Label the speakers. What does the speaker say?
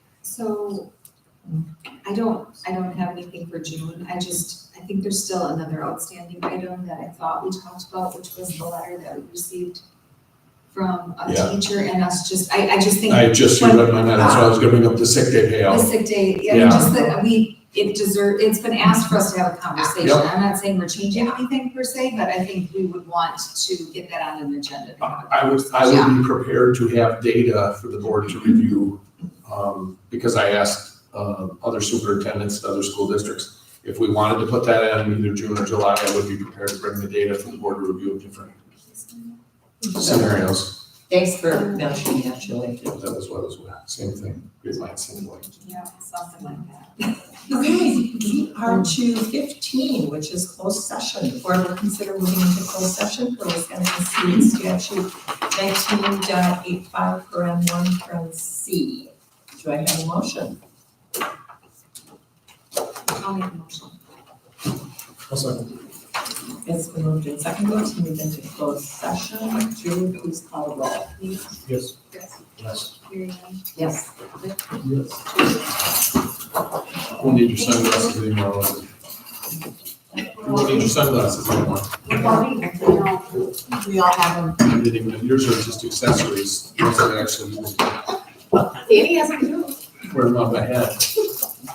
Speaker 1: So I don't, I don't have anything for June. I just, I think there's still another outstanding item that I thought we talked about, which was the letter that we received from a
Speaker 2: Yeah.
Speaker 1: teacher and us just, I, I just think
Speaker 2: I just, you read my mind, that's why I was gonna bring up the sick day
Speaker 1: the
Speaker 2: payout.
Speaker 1: sick day, yeah,
Speaker 2: Yeah.
Speaker 1: just that we, it deserve, it's been asked for us to have a conversation.
Speaker 2: Yep.
Speaker 1: I'm not saying we're changing anything per se, but I think we would want to get that on an agenda. to have a
Speaker 2: I would, I would be prepared to have data for the board to review, um, because I asked, uh, other superintendents, and other school districts, if we wanted to put that in either June or July, I would be prepared to bring the data for the board to review of different
Speaker 1: conversation.
Speaker 2: scenarios.
Speaker 3: Thanks for mentioning that, Julie.
Speaker 2: That was what I was, same thing, great mind, same way.
Speaker 1: Yeah, something like that.
Speaker 3: Okay, we are to fifteen, which is closed session. The Board will consider moving into closed session for Wisconsin State Statute nineteen dot eight five per N one per N C. Do I have a motion?
Speaker 1: I'll make a motion.
Speaker 3: It's been moved and seconded to move into closed session. Julie, please call the roll.
Speaker 4: Yes.
Speaker 1: Yes.
Speaker 4: Yes.
Speaker 1: Hearing
Speaker 3: Yes.
Speaker 4: Yes.
Speaker 2: We'll need your sunglasses anymore. We'll need your sunglasses anymore.
Speaker 3: We all have them.
Speaker 2: You didn't even- Yours are just accessories, yours are actually,
Speaker 5: Danny has to do.
Speaker 2: wearing them on my head.